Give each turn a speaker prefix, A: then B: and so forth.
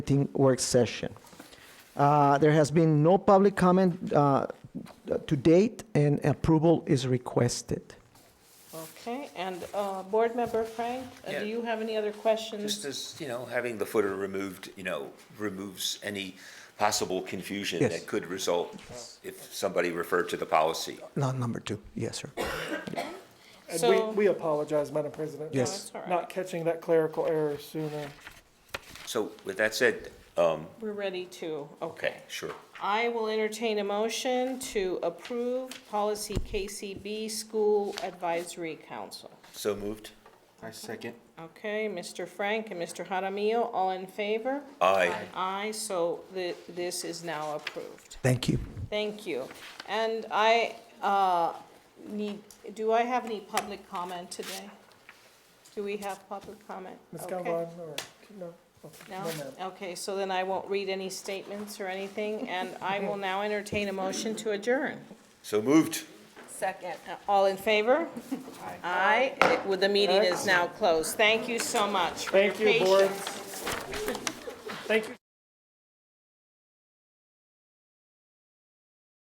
A: Team work session. Uh, There has been no public comment uh, to date, and approval is requested.
B: Okay, and uh, Board Member Frank, uh,
C: Yeah.
B: do you have any other questions?
C: Just as, you know, having the footer removed, you know, removes any possible confusion
A: Yes.
C: that could result if somebody referred to the policy.
A: Not number two, yes, sir.
D: And we,
B: So-
D: we apologize, Madam President. for
B: Yes. that's all right.
D: Not catching that clerical error sooner.
C: So with that said, um,
B: We're ready to, okay.
C: okay, sure.
B: I will entertain a motion to approve policy KCB, School Advisory Council.
C: So moved?
B: Okay, Mr. Frank and Mr. Jaramillo, all in favor?
C: Aye.
B: Aye, so thi- this is now approved.
A: Thank you.
B: Thank you. And I uh, need, do I have any public comment today? Do we have public comment?
D: Ms.
B: Okay.
D: Galvane, or, no? okay,
B: No?
D: ma'am.
B: Okay, so then I won't read any statements or anything, and I will now entertain a motion to adjourn.
C: So moved?
B: Second. All in favor? Aye. Aye, Well, the meeting is now closed. Thank you so much for your
D: Thank you,
B: patience.
D: board. Thank you.